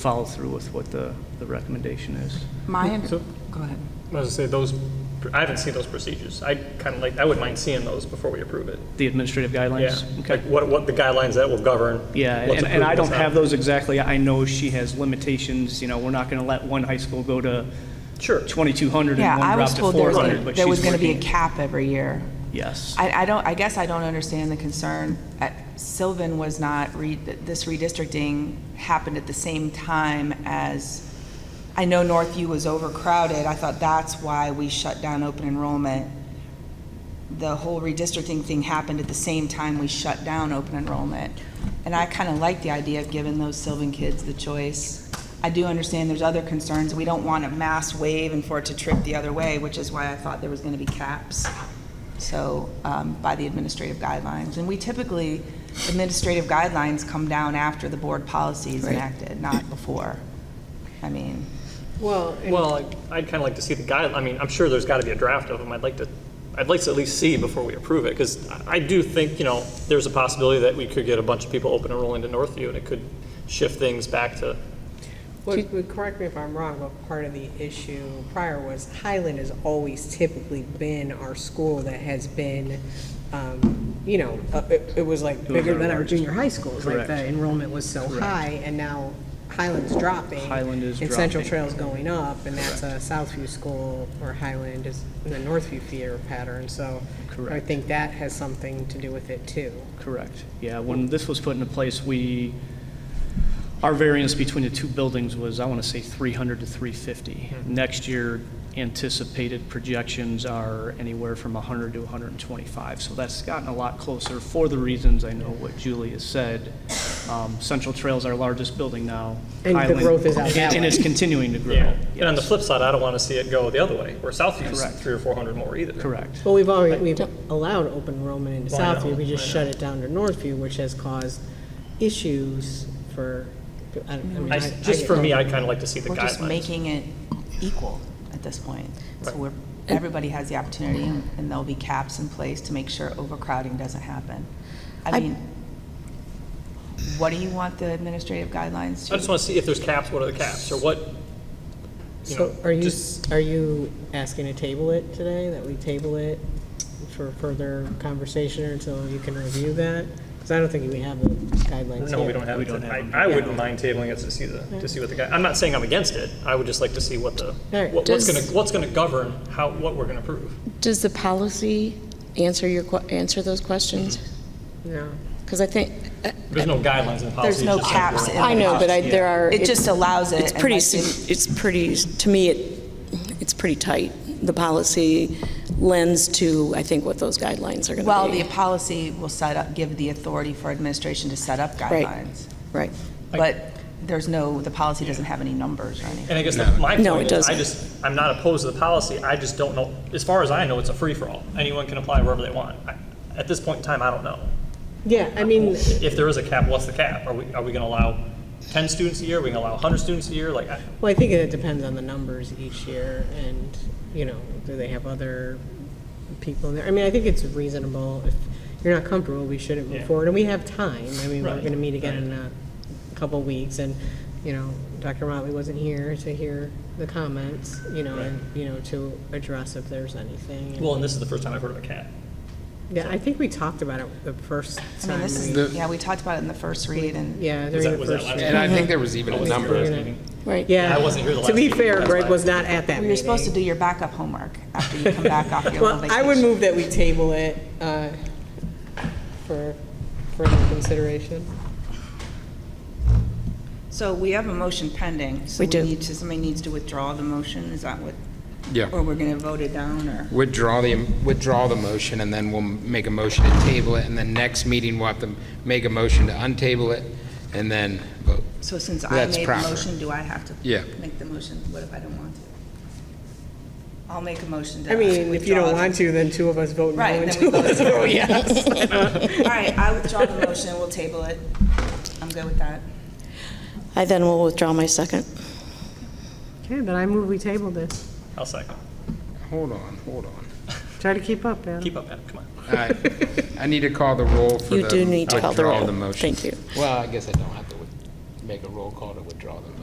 follow through with what the, the recommendation is. My, under- So- go ahead. I was gonna say, those, I haven't seen those procedures. I kind of like, I wouldn't mind seeing those before we approve it. The administrative Yeah, guidelines? like Okay. what, what the guidelines that will govern. Yeah, what's and, and approved, I what's don't have not. those exactly. I know she has limitations, you know, we're not going to let one high school go to Sure. 2,200 Yeah, and I one drop was to told there was, 400, gonna- but there was she's going to be a working. cap every year. Yes. I, I don't, I guess I don't understand the concern. Uh, Sylvan was not, re- this redistricting happened at the same time as, I know Northview was overcrowded. I thought that's why we shut down open enrollment. The whole redistricting thing happened at the same time we shut down open enrollment. And I kind of like the idea of giving those Sylvan kids the choice. I do understand there's other concerns. We don't want a mass wave and for it to trip the other way, which is why I thought there was going to be caps. So, um, by the administrative guidelines. And we typically, administrative guidelines come down after the board policy is enacted, not before. I mean, Well, and- Well, I- I'd kind of like to see the guide, I mean, I'm sure there's got to be a draft of them. I'd like to, I'd like to at least see before we approve it, because I do think, you know, there's a possibility that we could get a bunch of people open enrolling to Northview, and it could shift things back to, what- what- correct me if I'm wrong, but part of the issue prior was Highland has always typically been our school that has been, um, you know, uh, it it was like was bigger our than our largest. junior high schools. Like Correct. the enrollment was so high, and now Highland's dropping. Highland is And Central dropping. Trail's going up, and that's a Southview school, or Highland is in the Northview feeder pattern, so. I Correct. think that has something to do with it, too. Correct. Yeah, when this was put into place, we, our variance between the two buildings was, I want to say, 300 to 350. Mm-hmm. Next year, anticipated projections are anywhere from 100 to 125. So that's gotten a lot closer for the reasons I know what Julie has said. Um, Central Trail's our largest building now. And the Highland- growth is out and- that And way. it's continuing to grow. yeah. And on the Yes. flip side, I don't want to see it go the other way, where Southview's Correct. three or 400 more either. Correct. Well, we've already, we've allowed open enrollment into Well, I know, Southview, we just I shut it down to Northview, which has caused issues for, I don't, I mean, I I. s- I Just get for it. me, I'd kind of like to see the we're just guidelines. making it equal at this point. So Right. we're, everybody has the opportunity, and and there'll be caps in place to make sure overcrowding doesn't happen. I mean, what do you want the administrative guidelines I just to? want to see if there's caps, what are the caps, or what, you know, So are you, just- are you asking to table it today, that we table it for further conversation or until you can review that? Because I don't think we have the guidelines No, we yet. don't have We it. don't I- have I wouldn't mind tabling it to see the, to see what the guy, I'm not saying I'm against it. I would just like to see what the, right. what- what's Does- going to, what's going to govern how, what we're going to approve. Does the policy answer your, que- answer those questions? Mm-hmm. No. Because I think, There's no guidelines in the policy. There's no it's just like caps in I the know, but I, there are. It just allows it. It's and pretty, like sig- it's pretty, to me, it, it's pretty tight. The policy lends to, I think, what those guidelines are going to be. Well, the policy will set up, give the authority for administration to set up Right. guidelines. Right. But there's no, the policy doesn't have any numbers or anything. And I guess that's my No, point it is, I doesn't. just, I'm not opposed to the policy. I just don't know, as far as I know, it's a free-for-all. Anyone can apply wherever they want. I- At this point in time, I don't know. Yeah, I mean, If there is a cap, what's the cap? Are we, are we going to allow 10 students a year? Are we going to allow 100 students a year? Like, I- Well, I think it depends on the numbers each year and, you know, do they have other people in there? I mean, I think it's reasonable. If you're not comfortable, we shouldn't Yeah. move forward. And we have time. I mean, we're Right, going to meet again right. in a couple weeks and, you know, Dr. Motley wasn't here to hear the comments, you know, and, you know, to address if there's anything. And- well, and this is the first time I've heard of a cap. Yeah, I think we talked about it the first I mean, time this we, is, yeah, we talked about it in the first read and. yeah, Was during that, the was that first. last? year. And I think there was even a number, gonna- Right. Yeah. I wasn't here the To last be meeting, fair, that's Greg why. was not at that meeting. You're supposed to do your backup homework after you come back off your little Well, vacation. I would move that we table it uh, for further consideration. So we have a motion pending. so We do. need to- Somebody needs to withdraw the motion, is that what? Yeah. Or we're going to vote it down, or? withdraw the, withdraw the motion, and then we'll make a motion to table it, and then next meeting, we'll have to make a motion to untable it, and then vote. So since I That's made the proper. motion, do I have to? Yeah. Make the motion, what if I don't want to? I'll make a motion to. I mean, if you don't withdraw the- want to, then two of us vote no Right, and then two we of us vote no. vote yes. All right, I withdraw the motion, we'll table it. I'm good with that. I then will withdraw my second. Okay, then I move we table this. I'll second. Hold on, hold on. Try to keep up, Adam. Keep up, Adam, come on. All right. I need to call the roll for the You do need to call the withdrawal of roll. the motion. Thank you. Well, I guess I don't have to with- make a roll call to withdraw the motion.